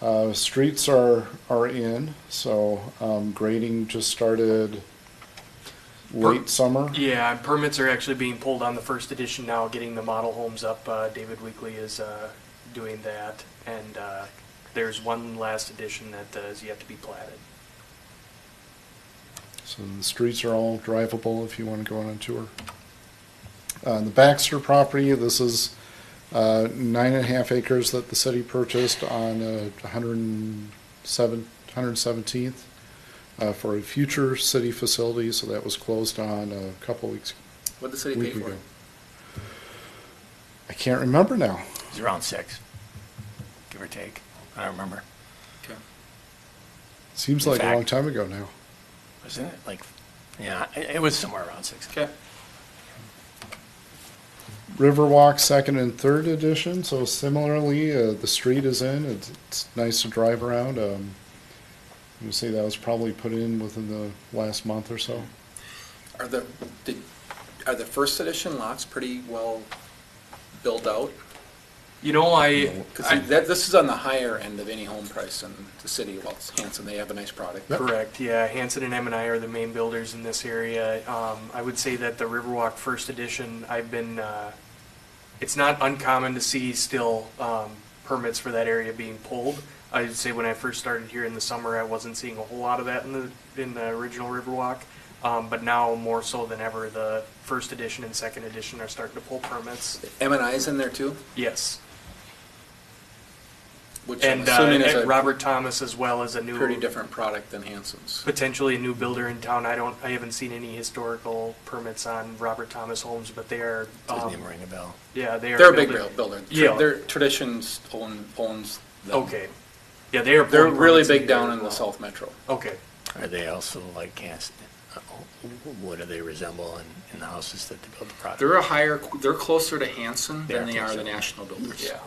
Uh, streets are, are in, so, um, grading just started late summer. Yeah, permits are actually being pulled on the first edition now, getting the model homes up. Uh, David Weekly is uh, doing that. And uh, there's one last edition that uh, is yet to be platted. So the streets are all drivable if you want to go on a tour. Uh, the Baxter property, this is uh, nine and a half acres that the city purchased on uh, 107 117th uh, for a future city facility. So that was closed on a couple weeks What'd the city pay week for ago. it? I can't remember now. It's around six, give or take. I don't remember. Okay. Seems In like a fact- long time ago now. Wasn't it like, yeah, it, it was somewhere around six. Okay. Riverwalk second and third edition. So similarly, uh, the street is in. It's, it's nice to drive around. Um, I would say that was probably put in within the last month or so. Are the, did, are the first edition lots pretty well built out? You know, I, Because that, this is on the higher end of any home price in the city of Walt- Hanson. They have a nice product. Correct, yeah. Hanson and M and I are the main builders in this area. Um, I would say that the Riverwalk First Edition, I've been, uh, it's not uncommon to see still, um, permits for that area being pulled. I'd say when I first started here in the summer, I wasn't seeing a whole lot of that in the, in the original Riverwalk. Um, but now more so than ever, the First Edition and Second Edition are starting to pull permits. M and I's in there too, Yes. which I'm And, uh, assuming is and a Robert Thomas as well as a new. pretty different product than Hanson's. potentially a new builder in town. I don't, I haven't seen any historical permits on Robert Thomas Homes, but they are, Doesn't um, even ring a bell. yeah, they are. They're a big building- builder. Tra- Yeah. Their traditions own, owns them. Okay. Yeah, they are. They're pulling really permits big together down as in the well. south metro. Okay, Are they also like cast, uh, what do they resemble in, in the houses that they build the product? They're a higher, they're closer to Hanson They are than they are closer. the national builders. yeah.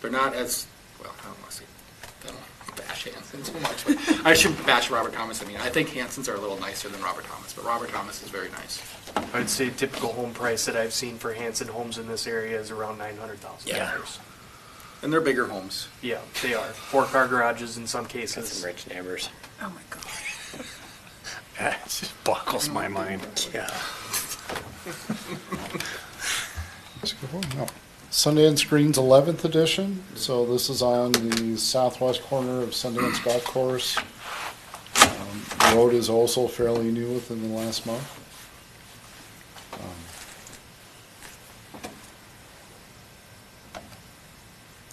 They're not as, well, I don't want to say, I don't want to bash Hanson too much, but I shouldn't bash Robert Thomas. I mean, I think Hanson's are a little nicer than Robert Thomas, but Robert Thomas is very nice. I'd say typical home price that I've seen for Hanson Homes in this area is around nine hundred thousand Yeah. dollars. And they're bigger homes. Yeah, they are. Four car garages in some Got cases. some rich neighbors. Oh, my God. Oh, It just boggles my mind. Yeah. Let's go on now. Sundance Green's 11th edition. So this is on the southwest corner of Sundance Golf Course. Um, the road is also fairly new within the last month. Um,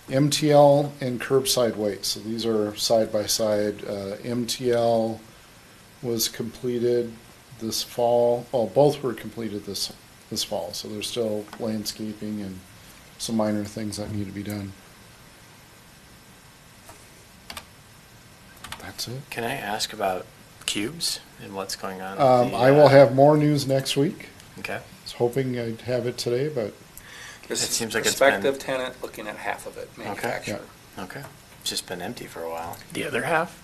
MTL and curbside weight. So these are side by side. Uh, MTL was completed this fall. Well, both were completed this this fall. So there's still landscaping and some minor things that need to be done. That's it. Can I ask about cubes and what's going on? with Um, the, I will uh, have more news next week. Okay. I was hoping I'd have it today, but This It is seems like it's been- prospective tenant looking at half of it, manufacturer. Okay. It's just been empty for a while. The other half?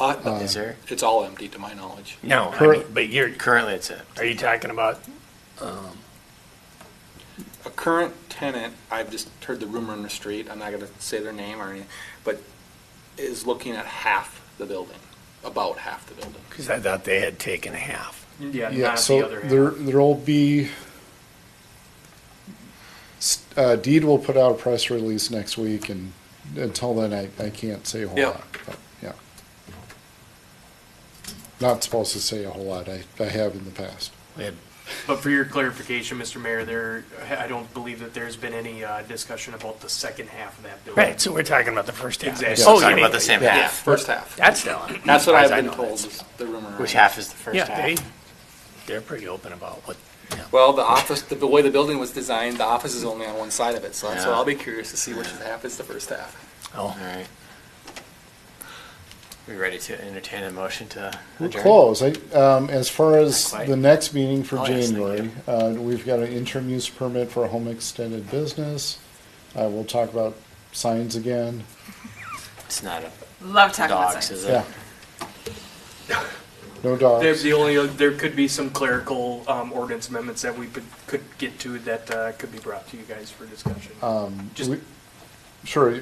Uh, Is there? It's all empty to my knowledge. No, I Cur- mean, but you're, Currently, it's it. are you talking about, A current tenant, I've just heard the rumor in the street, I'm not gonna say their name or anything, but is looking at half the building, about half the building. because I thought they had taken a half. Yeah, yeah. not the So other half. there there'll be. s- Uh, Deed will put out a press release next week, and until then, I, I can't say a whole Yeah. lot. But, yeah. Not supposed to say a whole lot. I, I have in the past. They had But for your clarification, Mr. Mayor, there, I don't believe that there's been any, uh, discussion about the second half of that building. Right, so we're talking about the first half. Exactly. Oh, you Talking mean- about the same Yeah, half. first half. That's telling. That's what As I've I been know told, that. is the rumor. Which half is the first Yeah, half? they, they're pretty open about what, yeah. Well, the office, the way the building was designed, the office is only on one side of it, so that's why Yeah. I'll be curious to see which half is the first half. oh, All right. We ready to entertain a motion to We're adjourn? close. I, um, as far as Not quite. the next meeting for Oh, yes, thank January, uh, we've got an interim use permit for a home extended business. Uh, we'll talk about signs again. It's not a Love talking about dogs, sex. is it? Yeah. No dogs. There's the only, there could be some clerical um, ordinance amendments that we could, Um, could get to that uh, could be brought to you guys for discussion. Just We- Sure,